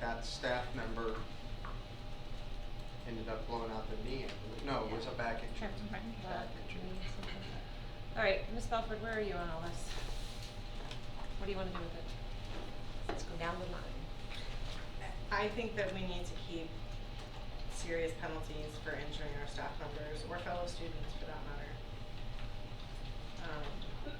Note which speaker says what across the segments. Speaker 1: that staff member ended up blowing out their knee, I believe. No, it was a back injury.
Speaker 2: Trapped in front of
Speaker 1: Back
Speaker 2: the-
Speaker 1: injury.
Speaker 2: All right, Ms. Belford, where are you on all this? What do you wanna do with it? Let's go down the line.
Speaker 3: I think that we need to keep serious penalties for injuring our staff members or fellow students for that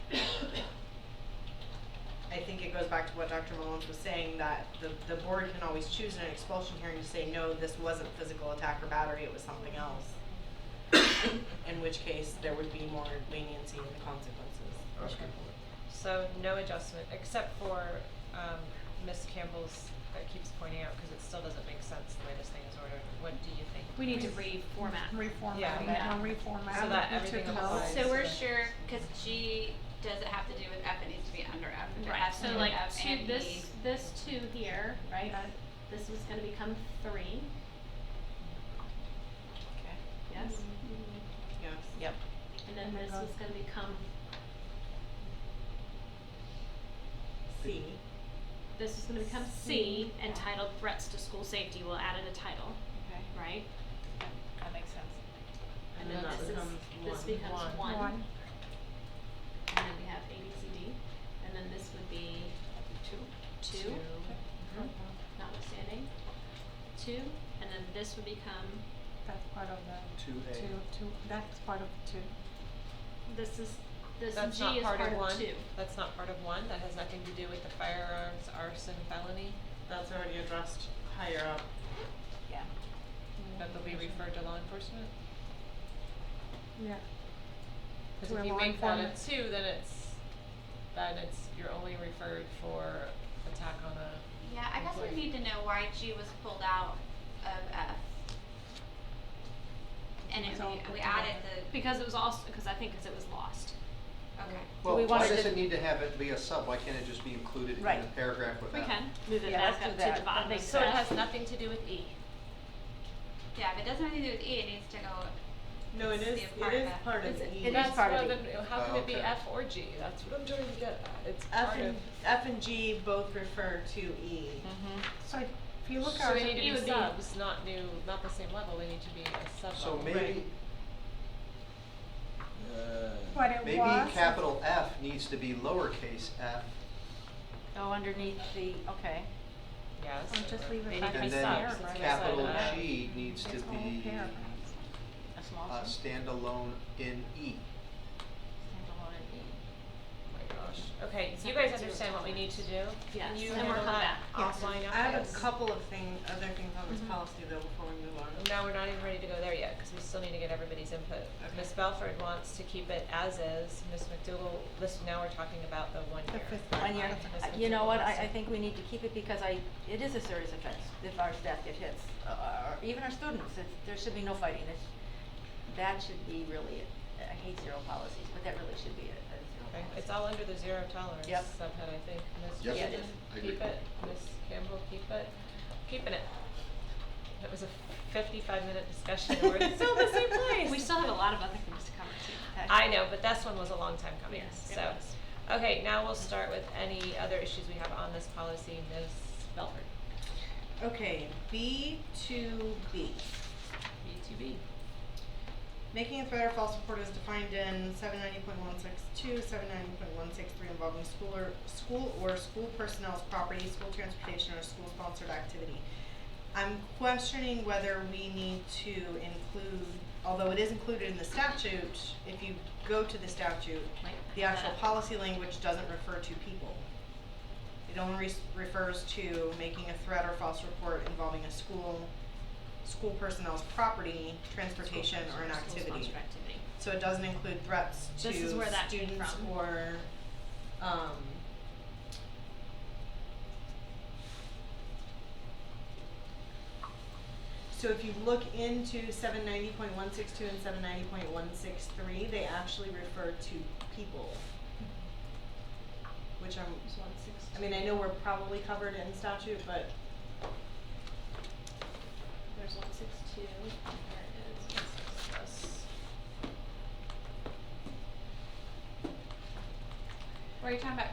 Speaker 3: matter. Um, I think it goes back to what Dr. Mullins was saying, that the, the board can always choose in an expulsion hearing to say, no, this wasn't physical attack or battery, it was something else. In which case, there would be more leniency in the consequences.
Speaker 4: That's a good
Speaker 2: Okay.
Speaker 4: point.
Speaker 2: So no adjustment, except for, um, Ms. Campbell's that keeps pointing out, cause it still doesn't make sense the way this thing is ordered. What do you think?
Speaker 5: We need to
Speaker 6: Re-
Speaker 5: reformat.
Speaker 6: reformat,
Speaker 2: Yeah,
Speaker 6: we
Speaker 2: that-
Speaker 6: now reformat.
Speaker 2: so that
Speaker 6: We took
Speaker 2: everything
Speaker 6: it out.
Speaker 2: applies.
Speaker 5: Oh, So we're
Speaker 2: Right.
Speaker 5: sure, because G doesn't have to do with F, it needs to be under F. The
Speaker 6: Right,
Speaker 5: F
Speaker 6: so
Speaker 5: and
Speaker 6: like
Speaker 5: F
Speaker 6: two,
Speaker 5: and E.
Speaker 6: this, this two here, right, uh, this was gonna become three,
Speaker 3: Okay.
Speaker 6: yes?
Speaker 3: Yes. Yep.
Speaker 6: And then this was gonna become,
Speaker 3: C.
Speaker 6: this was gonna become C, entitled threats to school safety, we'll add in a title,
Speaker 3: Okay.
Speaker 6: right?
Speaker 7: That makes sense.
Speaker 3: And then that
Speaker 6: this is-
Speaker 3: becomes
Speaker 6: This
Speaker 3: one.
Speaker 6: becomes
Speaker 2: One.
Speaker 6: one.
Speaker 7: One.
Speaker 6: And then we have A, B, C, D, and then this would be two. Two. Mm-hmm. notwithstanding. Two, and then this would become,
Speaker 7: That's part of the
Speaker 1: Two A.
Speaker 7: two, two, that's part of two.
Speaker 6: this is, this
Speaker 2: That's
Speaker 6: G
Speaker 2: not
Speaker 6: is
Speaker 2: part of one,
Speaker 6: two.
Speaker 2: that's not part of one, that has nothing to do with the firearms arson felony,
Speaker 3: That's already addressed higher up.
Speaker 7: Yeah.
Speaker 2: that will be referred to law enforcement?
Speaker 7: Yeah.
Speaker 2: Cause
Speaker 7: To
Speaker 2: if
Speaker 7: a
Speaker 2: you
Speaker 7: law
Speaker 2: make that a
Speaker 7: enforcement.
Speaker 2: two, then it's, then it's, you're only referred for attack on a,
Speaker 5: Yeah, I guess we
Speaker 2: Employee.
Speaker 5: need to know why G was pulled out of F. And
Speaker 7: It's
Speaker 5: it,
Speaker 7: all
Speaker 5: we,
Speaker 7: put
Speaker 5: we added
Speaker 7: together.
Speaker 5: the,
Speaker 6: Because it was also, because I think, because it was lost.
Speaker 5: okay.
Speaker 1: Well,
Speaker 7: we
Speaker 1: why
Speaker 7: wanna
Speaker 1: does
Speaker 7: do-
Speaker 1: it need to have it be a sub? Why can't it just be included in a
Speaker 7: Right.
Speaker 1: paragraph with
Speaker 6: We
Speaker 1: that?
Speaker 6: can move it
Speaker 7: Yeah,
Speaker 6: back
Speaker 7: let's do
Speaker 6: up
Speaker 7: that.
Speaker 6: to the bottom.
Speaker 7: That makes
Speaker 2: so it
Speaker 7: sense.
Speaker 2: has nothing to do with E.
Speaker 5: Yeah, if it doesn't have anything to do with E, it needs to go.
Speaker 3: No, it
Speaker 5: needs to
Speaker 3: is,
Speaker 5: be a
Speaker 3: it
Speaker 5: part
Speaker 3: is
Speaker 5: F.
Speaker 3: part of
Speaker 7: It's-
Speaker 3: E.
Speaker 7: it is part of
Speaker 2: That's
Speaker 7: E.
Speaker 2: why then, how can it be
Speaker 1: Oh, Okay.
Speaker 2: F or G? That's what I'm trying to get at, it's
Speaker 3: F
Speaker 2: part of. Mhm.
Speaker 3: and, F and G both refer to E.
Speaker 7: So if you look
Speaker 2: Mm-hmm. So
Speaker 7: at
Speaker 2: they
Speaker 7: it,
Speaker 2: need
Speaker 7: it
Speaker 2: to
Speaker 7: would
Speaker 2: be
Speaker 7: be.
Speaker 2: subs, not new, not the same level, they need to be a sub
Speaker 1: So
Speaker 2: level.
Speaker 1: maybe,
Speaker 7: What it
Speaker 1: maybe
Speaker 7: was.
Speaker 1: capital F needs to be lowercase f,
Speaker 8: Oh, underneath the, okay.
Speaker 2: Yes.
Speaker 7: Or just leave it
Speaker 2: They need
Speaker 7: back
Speaker 2: to be
Speaker 1: and
Speaker 7: as
Speaker 1: then
Speaker 2: subs,
Speaker 7: paragraph.
Speaker 2: it's
Speaker 1: capital
Speaker 2: beside F.
Speaker 1: G needs to
Speaker 7: It's all
Speaker 1: be
Speaker 7: paragraphs.
Speaker 8: A
Speaker 1: a
Speaker 8: small one?
Speaker 1: standalone in E.
Speaker 8: Standalone and E.
Speaker 2: Oh my gosh. Okay,
Speaker 6: It's
Speaker 2: you
Speaker 6: not
Speaker 2: guys
Speaker 6: gonna do
Speaker 2: understand
Speaker 6: it
Speaker 2: what we need to do?
Speaker 6: Yes,
Speaker 2: Can you
Speaker 6: and we'll
Speaker 2: handle
Speaker 6: come
Speaker 2: that
Speaker 6: back.
Speaker 2: offline
Speaker 3: I have a
Speaker 2: afterwards?
Speaker 3: couple of thing, other things on this
Speaker 2: Mhm.
Speaker 3: policy though before we move on.
Speaker 2: No, we're not even ready to go there yet, because we still need to get everybody's input.
Speaker 3: Okay.
Speaker 2: Ms. Belford wants to keep it as is, Ms. McDougal, this, now we're talking about the one
Speaker 7: The
Speaker 2: year.
Speaker 7: fifth
Speaker 8: One year,
Speaker 2: Ms.
Speaker 8: I- you
Speaker 2: McDougal
Speaker 8: know what,
Speaker 2: wants
Speaker 8: I, I
Speaker 2: to-
Speaker 8: think we need to keep it because I, it is a serious offense if our staff get hits, uh, or even our students, it's, there should be no fighting, it's, that should be really, it. I hate zero policies, but that really should be a, a zero
Speaker 2: Okay,
Speaker 8: policy.
Speaker 2: it's all under the zero tolerance
Speaker 8: Yep.
Speaker 2: subhead, I think. Ms.
Speaker 4: Yep.
Speaker 8: Yeah, it
Speaker 2: Jordan,
Speaker 8: is.
Speaker 4: I agree.
Speaker 2: keep it, Ms. Campbell, keep it, keeping it. It was a fifty-five minute discussion, and we're still in the same place.
Speaker 6: We still have a lot of other things to cover too.
Speaker 2: I know, but this one was a long time coming,
Speaker 6: Yes,
Speaker 2: so.
Speaker 6: it was.
Speaker 2: Okay, now we'll start with any other issues we have on this policy, Ms. Belford.
Speaker 3: Okay, B to B.
Speaker 2: B two B.
Speaker 3: Making a threat or false report is defined in seven ninety point one six two, seven ninety point one six three involving school or, school or school personnel's property, school transportation, or school-sponsored activity. I'm questioning whether we need to include, although it is included in the statute, if you go to the statute,
Speaker 6: Like
Speaker 3: the actual
Speaker 6: that.
Speaker 3: policy language doesn't refer to people. It only res- refers to making a threat or false report involving a school, school personnel's property, transportation, or an activity.
Speaker 6: School-sponsored activity.
Speaker 3: So it doesn't include threats to
Speaker 6: This is where that came
Speaker 3: students
Speaker 6: from.
Speaker 3: or, um. So if you look into seven ninety point one six two and seven ninety point one six three, they actually refer to people. Which I'm,
Speaker 6: It's one six
Speaker 3: I mean, I know we're probably covered in statute, but
Speaker 6: There's one six two, there is one six plus.
Speaker 5: Were you talking about